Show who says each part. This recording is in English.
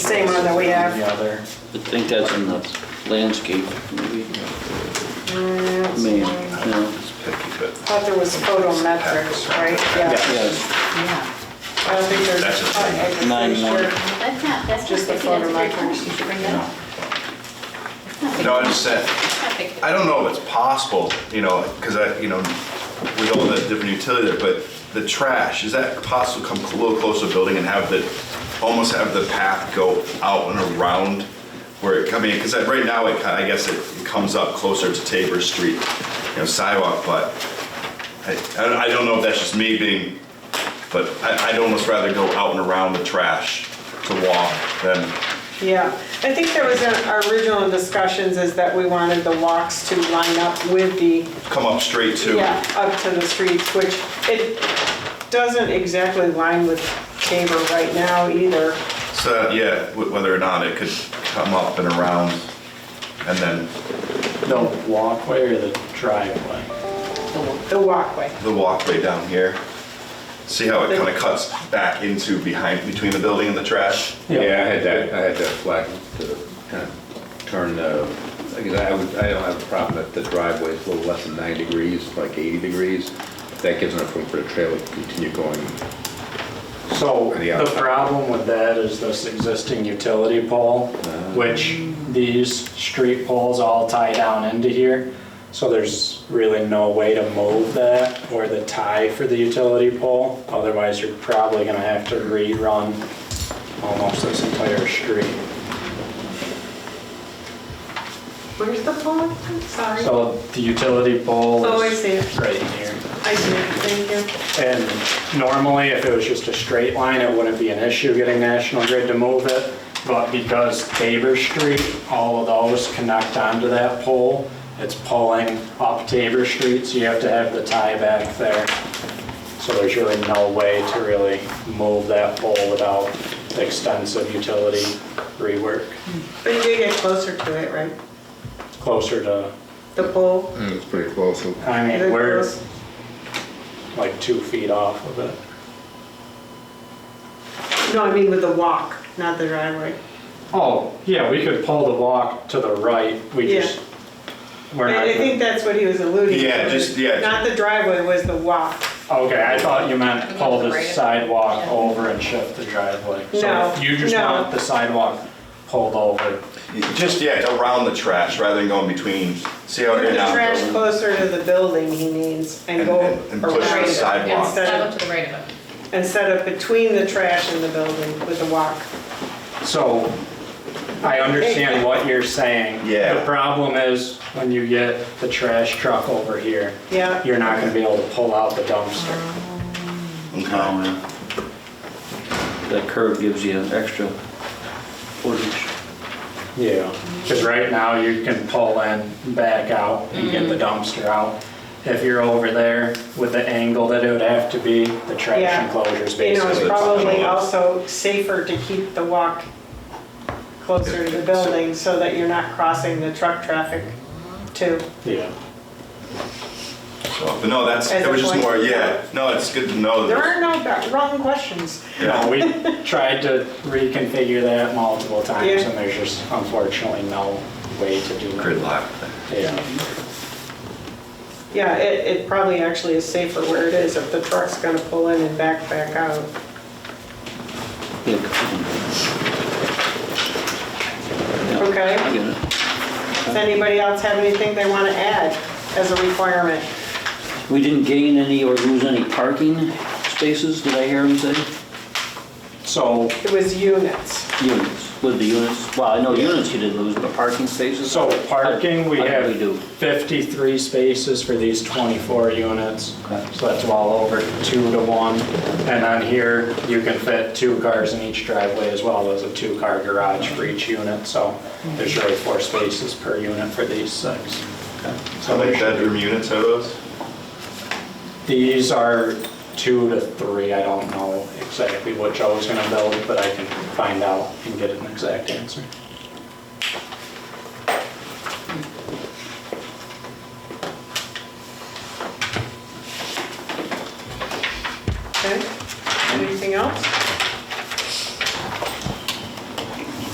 Speaker 1: same one that we have.
Speaker 2: The other.
Speaker 3: I think that's in the landscape, maybe. Maybe, no.
Speaker 4: It's picky, but
Speaker 1: Thought there was photometrics, right? Yeah.
Speaker 3: Yes,
Speaker 1: I don't think there's.
Speaker 4: That's a thing.
Speaker 1: I- I'm pretty
Speaker 3: Nine
Speaker 1: sure-
Speaker 3: more.
Speaker 5: That's not, that's not
Speaker 1: Just the
Speaker 5: picky, that's a
Speaker 1: photometrics.
Speaker 5: great point, you should bring that up. It's not picky.
Speaker 4: No, I just said,
Speaker 5: It's not picky.
Speaker 4: I don't know if it's possible, you know, because I, you know, with all the different utility there, but the trash, is that possible to come a little closer to the building and have the, almost have the path go out and around where it, I mean, because right now, it, kind I guess it it comes up closer to Tabor Street, you know, sidewalk, but I, I don't- I don't know if that's just me being, but I, I'd almost rather go out and around the trash to walk than,
Speaker 1: Yeah, I think that was in our original discussions is that we wanted the walks to line up with the,
Speaker 4: come up straight to.
Speaker 1: yeah, up to the streets, which it doesn't exactly line with Tabor right now either.
Speaker 4: So, yeah, wh- whether or not it could come up and around and then
Speaker 2: The walkway or the driveway?
Speaker 1: The walkway.
Speaker 4: the walkway down here. See how it kind of cuts back into behind, between the building and the trash?
Speaker 2: Yeah.
Speaker 6: Yeah, I had that, I had that flag to kind of turn the, I guess I would, I don't have a problem that the driveway is a little less than 90 degrees, like 80 degrees. That gives enough room for the trailer to continue going.
Speaker 2: So
Speaker 6: And the
Speaker 2: the
Speaker 6: outside.
Speaker 2: problem with that is this existing utility pole,
Speaker 6: Ah.
Speaker 2: which these street poles all tie down into here. So there's really no way to move that or the tie for the utility pole. Otherwise, you're probably gonna have to rerun almost this entire street.
Speaker 1: Where's the pole? Sorry.
Speaker 2: So the utility pole
Speaker 1: Oh, I see
Speaker 2: is
Speaker 1: it.
Speaker 2: right here.
Speaker 1: I see, thank you.
Speaker 2: And normally, if it was just a straight line, it wouldn't be an issue getting National Grid to move it. But because Tabor Street, all of those connect onto that pole, it's pulling up Tabor Street, so you have to have the tie back there. So there's really no way to really move that pole without extensive utility rework
Speaker 1: But you did get closer to it, right?
Speaker 2: closer to,
Speaker 1: The pole?
Speaker 6: Mm, It's pretty close.
Speaker 2: I
Speaker 1: Is it
Speaker 2: mean, we're
Speaker 1: close?
Speaker 2: like two feet off of it.
Speaker 1: No, I mean with the walk, not the driveway.
Speaker 2: Oh, yeah, we could pull the walk to the right, we
Speaker 1: Yeah.
Speaker 2: just, we're
Speaker 1: I I think
Speaker 2: not,
Speaker 1: that's what he was alluding to.
Speaker 4: Yeah, just- yeah.
Speaker 1: Not the driveway, was the walk.
Speaker 2: okay, I thought you meant pull the
Speaker 5: Right.
Speaker 2: sidewalk over and shift the driveway.
Speaker 1: No,
Speaker 2: So You just
Speaker 1: no.
Speaker 2: want the sidewalk pulled over.
Speaker 4: Just, yeah, around the trash rather than going between, see how
Speaker 1: Put
Speaker 4: it
Speaker 1: the trash
Speaker 4: now.
Speaker 1: closer to the building he means and
Speaker 4: And-
Speaker 1: go
Speaker 4: and- and push the
Speaker 1: around it
Speaker 4: sidewalk.
Speaker 1: Instead
Speaker 5: Sidewalk
Speaker 1: of,
Speaker 5: to the right of it.
Speaker 1: instead of between the trash and the building with the walk.
Speaker 2: So I understand what you're saying.
Speaker 4: Yeah.
Speaker 2: The problem is when you get the trash truck over here,
Speaker 1: Yeah.
Speaker 2: you're not gonna be able to pull out the dumpster.
Speaker 4: Okay.
Speaker 3: that curve gives you an extra footage.
Speaker 2: Yeah, because right now you can pull in, back out, and get
Speaker 1: Mm-hmm.
Speaker 2: the dumpster out. If you're over there with the angle that it would have to be, the trash
Speaker 1: Yeah.
Speaker 2: enclosure's
Speaker 1: You know, it's
Speaker 2: basically.
Speaker 1: probably
Speaker 4: tunnel.
Speaker 1: also safer to keep the walk closer to the building so that you're not crossing the truck traffic too.
Speaker 2: Yeah,
Speaker 4: So, But no, that's,
Speaker 1: As
Speaker 4: it
Speaker 1: a
Speaker 4: was just
Speaker 1: point.
Speaker 4: more, yeah, no, it's good to know.
Speaker 1: There
Speaker 4: that-
Speaker 1: are no ba- wrong questions.
Speaker 2: No,
Speaker 4: Yeah.
Speaker 2: we tried to reconfigure that multiple times,
Speaker 1: Yeah.
Speaker 2: and there's just unfortunately no way to do it.
Speaker 4: Gridlock.
Speaker 2: Yeah,
Speaker 1: Yeah, it, it probably actually is safer where it is if the truck's gonna pull in and back, back out.
Speaker 3: Yeah, Yeah,
Speaker 1: Okay.
Speaker 3: I get it.
Speaker 1: Does anybody else have anything they want to add as a requirement?
Speaker 3: We didn't gain any or lose any parking spaces, did I hear him say?
Speaker 2: so,
Speaker 1: It was units.
Speaker 3: Units, with the units, well, I know units you did lose, but parking spaces?
Speaker 2: so parking, we
Speaker 3: I think
Speaker 2: have
Speaker 3: we do.
Speaker 2: 53 spaces for these 24 units.
Speaker 3: Okay.
Speaker 2: So that's well over two to one. And on here, you can fit two cars in each driveway as well as a two-car garage for each unit. So there's really four spaces per unit for these six.
Speaker 4: How many bedroom units are those?
Speaker 2: These are two to three. I don't know exactly what Joe's gonna build, but I can find out and get an exact answer.